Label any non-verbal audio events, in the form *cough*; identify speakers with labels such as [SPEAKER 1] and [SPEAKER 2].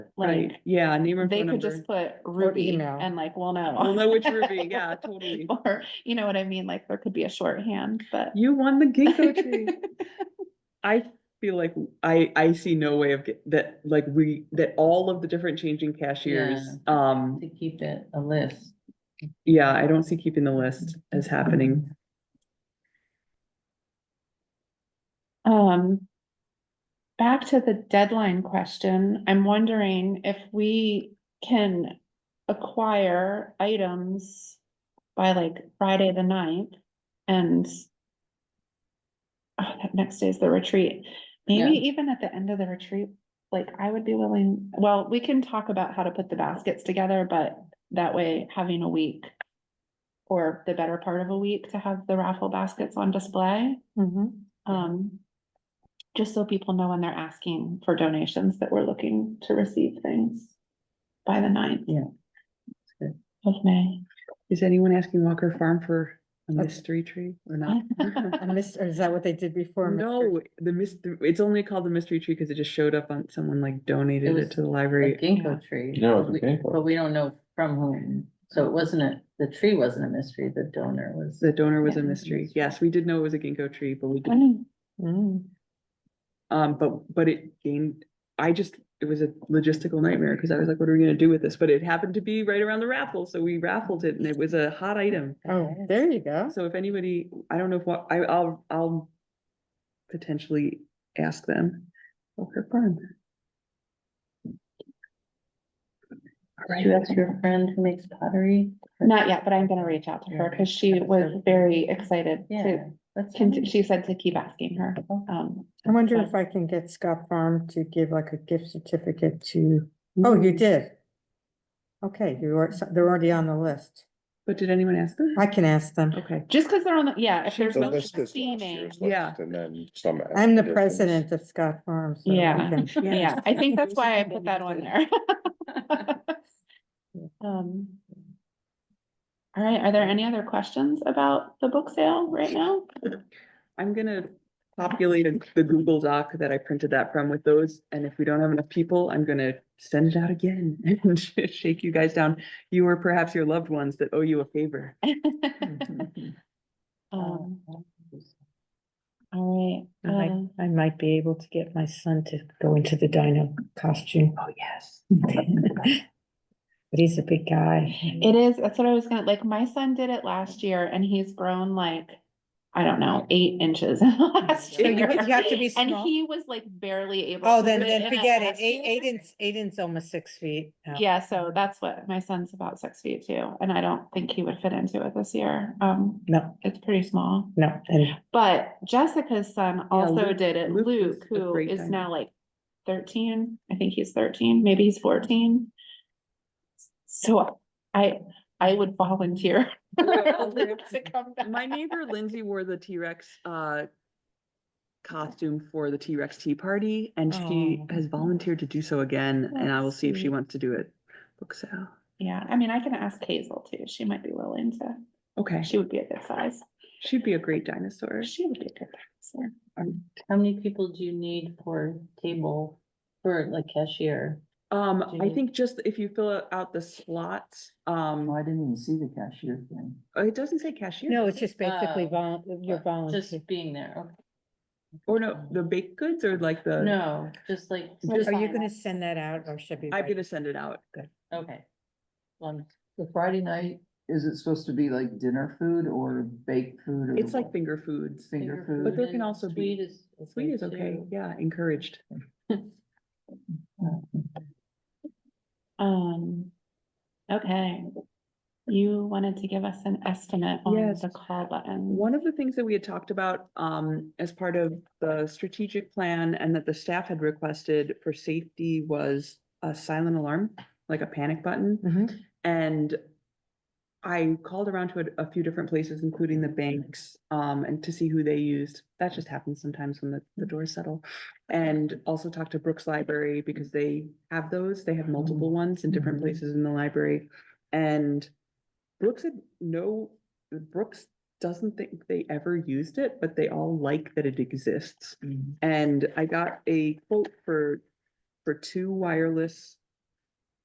[SPEAKER 1] Like,
[SPEAKER 2] Right, yeah, name and
[SPEAKER 1] they
[SPEAKER 2] phone
[SPEAKER 1] could
[SPEAKER 2] number.
[SPEAKER 1] just put Ruby
[SPEAKER 3] email.
[SPEAKER 1] and like, we'll know.
[SPEAKER 2] We'll know which
[SPEAKER 1] *laughs*
[SPEAKER 2] Ruby, yeah, totally.
[SPEAKER 1] Or, you know what I mean? Like, there could be a shorthand, but.
[SPEAKER 2] *laughs* You won the ginkgo tree. I feel like I, I see no way of get, that, like we, that all of the different changing cashiers, um,
[SPEAKER 3] To keep it a list.
[SPEAKER 2] yeah, I don't see keeping the list as happening.
[SPEAKER 1] Um, back to the deadline question, I'm wondering if we can acquire items by like Friday the ninth and oh, that next day is the retreat. Maybe even at the end of the retreat, like I would be willing, well, we can talk about how to put the baskets together, but that way having a week or the better part of a week to have the raffle baskets on display. Um, just so people know when they're asking for donations that we're looking to receive things by the ninth.
[SPEAKER 3] Yeah. That's
[SPEAKER 1] Of May.
[SPEAKER 2] Is anyone asking Walker Farm for a
[SPEAKER 3] Okay.
[SPEAKER 2] mystery tree or not?
[SPEAKER 3] And this, or is that what they did before? Mr.
[SPEAKER 2] No, the mys- it's only called the mystery tree because it just showed up on, someone like donated
[SPEAKER 3] was
[SPEAKER 2] it to the
[SPEAKER 3] The
[SPEAKER 2] library.
[SPEAKER 3] ginkgo tree.
[SPEAKER 4] No, it's a
[SPEAKER 3] but we-
[SPEAKER 4] ginkgo.
[SPEAKER 3] But we don't know from whom, so it wasn't a, the tree wasn't a mystery, the donor was.
[SPEAKER 2] The donor was a
[SPEAKER 1] Yeah.
[SPEAKER 2] mystery. Yes, we did know it was a ginkgo tree, but we didn't
[SPEAKER 1] Mm,
[SPEAKER 2] Um, but, but it gained, I just, it was a logistical nightmare because I was like, what are we gonna do with this? But it happened to be right around the raffle, so we raffled it and it was a hot item.
[SPEAKER 3] Oh, there you go.
[SPEAKER 2] So if anybody, I don't know if what, I, I'll, I'll potentially ask them. Oh, Walker Farm. All
[SPEAKER 3] Do you
[SPEAKER 2] right,
[SPEAKER 3] ask your friend who makes pottery?
[SPEAKER 1] Not yet, but I'm gonna reach out to her because she was very excited
[SPEAKER 3] Yeah.
[SPEAKER 1] to,
[SPEAKER 3] that's
[SPEAKER 1] con-
[SPEAKER 3] nice.
[SPEAKER 1] she said to keep asking her.
[SPEAKER 3] Okay.
[SPEAKER 1] Um,
[SPEAKER 5] I wonder
[SPEAKER 1] so-
[SPEAKER 5] if I can get Scott Farm to give like a gift certificate to, oh, you did. Okay, you are, so they're already on the list.
[SPEAKER 2] but did anyone ask them?
[SPEAKER 5] I can ask them. *laughs*
[SPEAKER 2] Okay,
[SPEAKER 1] Just because they're on the, yeah, if there's
[SPEAKER 2] The
[SPEAKER 4] The
[SPEAKER 1] no
[SPEAKER 4] list is last
[SPEAKER 1] steaming.
[SPEAKER 4] year's
[SPEAKER 2] Yeah.
[SPEAKER 4] list and then some.
[SPEAKER 5] I'm the
[SPEAKER 4] additions.
[SPEAKER 5] president of Scott Farm. so we
[SPEAKER 1] Yeah.
[SPEAKER 3] *laughs*
[SPEAKER 5] can-
[SPEAKER 1] Yeah, I think that's why I put that on there. *laughs*
[SPEAKER 5] Yeah.
[SPEAKER 1] Um. All right, are there any other questions about the book sale right now?
[SPEAKER 2] I'm gonna populate a- the Google Doc that I printed that from with those, and if we don't have enough people, I'm gonna send it out again *laughs* and shake you guys down. You or perhaps your loved ones that owe you a
[SPEAKER 5] *laughs*
[SPEAKER 2] favor.
[SPEAKER 1] Um, all
[SPEAKER 5] I
[SPEAKER 1] right,
[SPEAKER 5] might-
[SPEAKER 1] um,
[SPEAKER 5] I might be able to get my son to go into the dino costume,
[SPEAKER 2] Oh, yes.
[SPEAKER 5] but he's a big guy.
[SPEAKER 1] it is, that's what I was gonna, like, my son did it last year and he's grown like, I don't know, eight inches *laughs* in the last
[SPEAKER 5] So you
[SPEAKER 1] year.
[SPEAKER 5] could- you have to be
[SPEAKER 1] And
[SPEAKER 5] small.
[SPEAKER 1] he was like barely able.
[SPEAKER 5] Oh,
[SPEAKER 1] to
[SPEAKER 5] then,
[SPEAKER 1] do in
[SPEAKER 5] then forget it.
[SPEAKER 1] last
[SPEAKER 5] Eight,
[SPEAKER 1] year.
[SPEAKER 5] Aiden's, Aiden's almost six feet. now.
[SPEAKER 1] Yeah, so that's what, my son's about six feet too, and I don't think he would fit into it this year. Um,
[SPEAKER 5] No,
[SPEAKER 1] it's pretty small.
[SPEAKER 5] no, and
[SPEAKER 1] But Jessica's son also
[SPEAKER 2] Luke-
[SPEAKER 1] did it,
[SPEAKER 2] Luke was
[SPEAKER 1] Luke,
[SPEAKER 2] a
[SPEAKER 1] who
[SPEAKER 2] great
[SPEAKER 1] is
[SPEAKER 2] guy.
[SPEAKER 1] now like thirteen, I think he's thirteen, maybe he's fourteen. So I, I would volunteer. *laughs*
[SPEAKER 2] *laughs*
[SPEAKER 1] Luke to come back.
[SPEAKER 2] My neighbor Lindsay wore the T-Rex uh costume for the T-Rex Tea Party, and she
[SPEAKER 5] Oh.
[SPEAKER 2] has volunteered to do so again, and I will see if she
[SPEAKER 5] Sweet.
[SPEAKER 2] wants to do it. Book sale.
[SPEAKER 1] Yeah, I mean, I can ask Hazel too, she might be willing to,
[SPEAKER 2] Okay,
[SPEAKER 1] she would be a good size,
[SPEAKER 2] she'd be a great dinosaur.
[SPEAKER 1] she would be a good size.
[SPEAKER 3] How many people do you need for table, for like cashier?
[SPEAKER 2] Um, I
[SPEAKER 3] Gee.
[SPEAKER 2] think just if you fill out the slots, um,
[SPEAKER 3] I didn't even see the cashier thing.
[SPEAKER 2] oh, it doesn't say cashier.
[SPEAKER 5] No,
[SPEAKER 2] does
[SPEAKER 5] it's
[SPEAKER 2] it?
[SPEAKER 5] just basically
[SPEAKER 3] Oh,
[SPEAKER 5] vol, you're volunteer.
[SPEAKER 3] Just being there, okay.
[SPEAKER 2] Or no, the baked goods or like the.
[SPEAKER 3] No, just like,
[SPEAKER 1] Are
[SPEAKER 5] Are you
[SPEAKER 1] sign
[SPEAKER 5] gonna
[SPEAKER 1] up.
[SPEAKER 5] send that out or should we?
[SPEAKER 2] I'm
[SPEAKER 5] write-
[SPEAKER 2] gonna send it out.
[SPEAKER 3] okay. One,
[SPEAKER 6] The Friday night, is it supposed to be like dinner food or baked food? or
[SPEAKER 2] It's like
[SPEAKER 6] what?
[SPEAKER 2] finger foods.
[SPEAKER 6] Finger
[SPEAKER 2] But
[SPEAKER 6] food.
[SPEAKER 2] there can also be-
[SPEAKER 3] Sweet is.
[SPEAKER 2] Sweet is okay.
[SPEAKER 3] too.
[SPEAKER 2] Yeah, encouraged.
[SPEAKER 1] Um, okay. You wanted to give us an estimate on
[SPEAKER 2] Yes.
[SPEAKER 1] the call button.
[SPEAKER 2] One of the things that we had talked about um as part of the strategic plan and that the staff had requested for safety was a silent alarm, like a panic button.
[SPEAKER 5] Mhm.
[SPEAKER 2] And I called around to a, a few different places, including the banks, um, and to see who they used. That just happens sometimes when the, the doors settle. And also talked to Brooks Library because they have those, they have multiple ones in different
[SPEAKER 3] Mhm.
[SPEAKER 2] places in the library. And Brooks had no, Brooks doesn't think they ever used it, but they all like that it exists. *laughs*
[SPEAKER 3] Mhm.
[SPEAKER 2] And I got a quote for, for two wireless